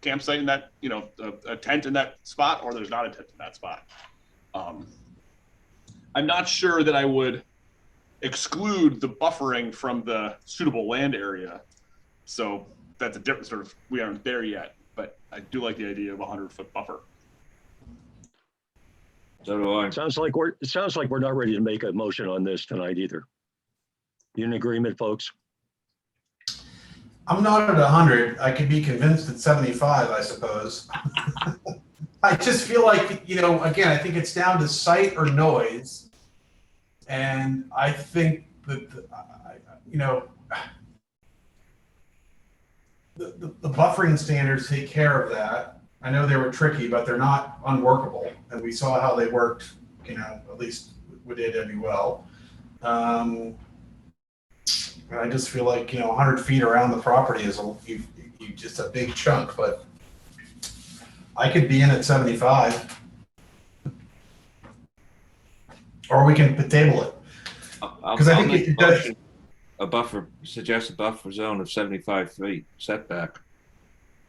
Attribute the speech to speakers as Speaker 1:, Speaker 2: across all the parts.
Speaker 1: campsite in that, you know, a, a tent in that spot, or there's not a tent in that spot. Um, I'm not sure that I would exclude the buffering from the suitable land area. So that's a different sort of, we aren't there yet, but I do like the idea of a hundred foot buffer.
Speaker 2: So do I.
Speaker 3: Sounds like we're, it sounds like we're not ready to make a motion on this tonight either. You in agreement, folks?
Speaker 4: I'm not at 100. I could be convinced at 75, I suppose. I just feel like, you know, again, I think it's down to sight or noise. And I think that, the- I- I- you know, the, the, the buffering standards take care of that. I know they were tricky, but they're not unworkable. And we saw how they worked, you know, at least with AWL. Um, and I just feel like, you know, 100 feet around the property is a, you, you just a big chunk, but I could be in at 75. Or we can table it.
Speaker 2: I'll- I'll-
Speaker 4: 'Cause I
Speaker 2: I'll
Speaker 4: think
Speaker 2: make
Speaker 4: it
Speaker 2: a
Speaker 4: does-
Speaker 2: motion- A buffer, suggest a buffer zone of seventy-five feet setback.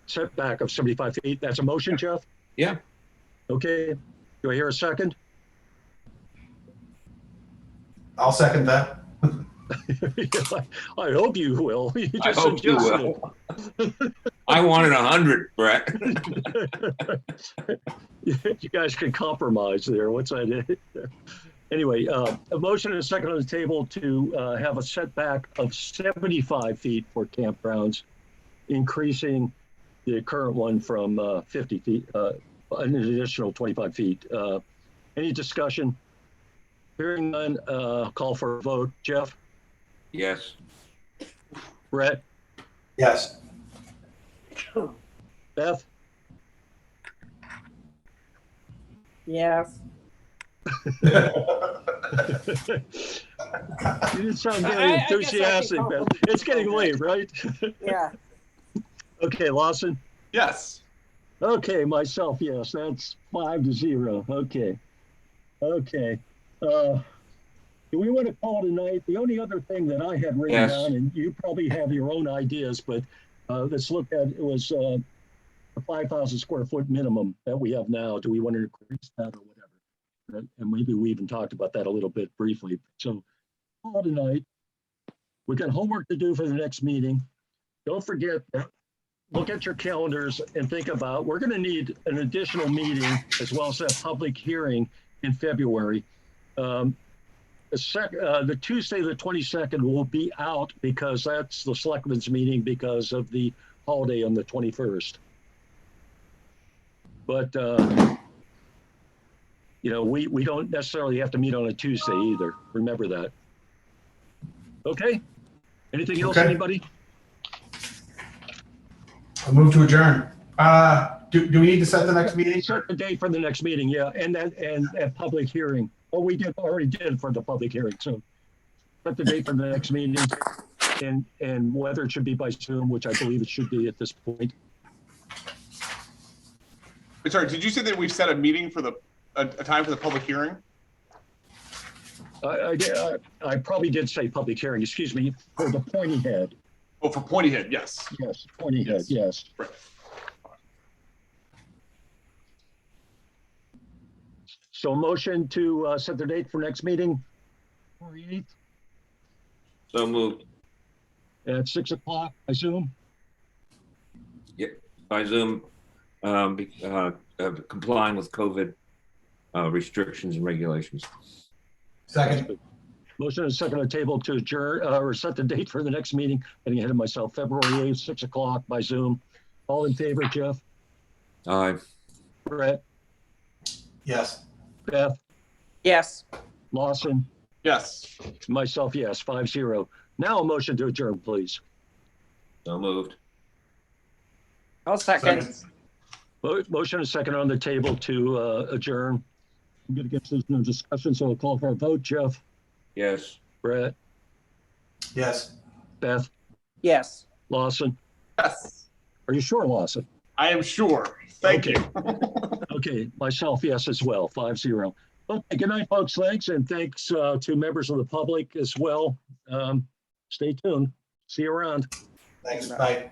Speaker 3: Setback of 75 feet, that's a motion, Jeff?
Speaker 2: Yeah.
Speaker 3: Okay, do I hear a second?
Speaker 4: I'll second that.
Speaker 3: I hope you will. You
Speaker 2: I
Speaker 3: just
Speaker 2: hope you
Speaker 3: suggested it.
Speaker 2: will. I wanted a hundred, Brett.
Speaker 3: You guys can compromise there. What's that? Anyway, uh, a motion and a second on the table to uh, have a setback of 75 feet for campgrounds, increasing the current one from uh, 50 feet, uh, an additional 25 feet. Uh, Any discussion? Hearing none, uh, call for a vote. Jeff,
Speaker 2: Yes,
Speaker 3: Brett,
Speaker 4: Yes.
Speaker 3: Beth,
Speaker 5: Yes.
Speaker 3: you didn't sound very
Speaker 5: I- I- I guess I could
Speaker 3: enthusiastic,
Speaker 5: call
Speaker 3: Beth.
Speaker 5: for-
Speaker 3: It's getting late, right?
Speaker 5: Yeah.
Speaker 3: Okay, Lawson?
Speaker 1: Yes.
Speaker 3: Okay, myself, yes, that's five to zero. Okay. Okay. Uh, do we want to call tonight? The only other thing that I had written
Speaker 2: Yes.
Speaker 3: down, and you probably have your own ideas, but uh, let's look at it was uh, the 5,000 square foot minimum that we have now. Do we want to increase that or whatever? And- And maybe we even talked about that a little bit briefly. So, call tonight. We got homework to do for the next meeting. Don't forget that look at your calendars and think about, we're going to need an additional meeting as well as that public hearing in February. Um, The sec, uh, the Tuesday, the twenty-second will be out because that's the selectmen's meeting because of the holiday on the twenty-first. But, uh, you know, we, we don't necessarily have to meet on a Tuesday either. Remember that. Okay? Anything else,
Speaker 4: Okay.
Speaker 3: anybody?
Speaker 4: I move to adjourn. Uh, do, do we need to set the next meeting?
Speaker 3: Set the date for the next meeting, yeah, and that, and that public hearing. Oh, we did, already did for the public hearing, so. Set the date for the next meeting and, and whether it should be by Zoom, which I believe it should be at this point.
Speaker 1: Wait, Sorry, did you say that we've set a meeting for the, a, a time for the public hearing?
Speaker 3: I, I, did- I- I probably did say public hearing, excuse me, for the pointy head,
Speaker 1: Oh, for Pointy Head, yes.
Speaker 3: yes, pointy head,
Speaker 1: Yes.
Speaker 3: yes.
Speaker 1: Right.
Speaker 3: So motion to, uh, set the date for next meeting. February 8th
Speaker 2: so moved
Speaker 3: At six o'clock, I assume?
Speaker 2: by Zoom, um, be- uh, uh, complying with COVID uh, restrictions and regulations.
Speaker 4: Second.
Speaker 3: Motion and second on the table to adjourn, uh, or set the date for the next meeting, getting ahead of myself, February 8th, 6 o'clock by Zoom. All in favor, Jeff,
Speaker 2: Aye,
Speaker 3: Brett,
Speaker 4: Yes.
Speaker 3: Beth,
Speaker 5: Yes.
Speaker 3: Lawson,
Speaker 1: Yes.
Speaker 3: myself, yes, five zero. Now a motion to adjourn, please.
Speaker 2: so moved.
Speaker 5: I'll second.
Speaker 3: Mo- Motion and second on the table to uh, adjourn. I'm going to guess there's no discussion, so I'll call for a vote. Jeff,
Speaker 2: Yes,
Speaker 3: Brett,
Speaker 4: Yes.
Speaker 3: Beth,
Speaker 5: Yes.
Speaker 3: Lawson.
Speaker 1: Yes.
Speaker 3: Are you sure, Lawson?
Speaker 1: I am sure. Thank you.
Speaker 3: Okay, myself, yes, as well, five zero. Okay, good night, folks, thanks, and thanks uh, to members of the public as well. Um, Stay tuned, see you around.
Speaker 4: Thanks. Bye.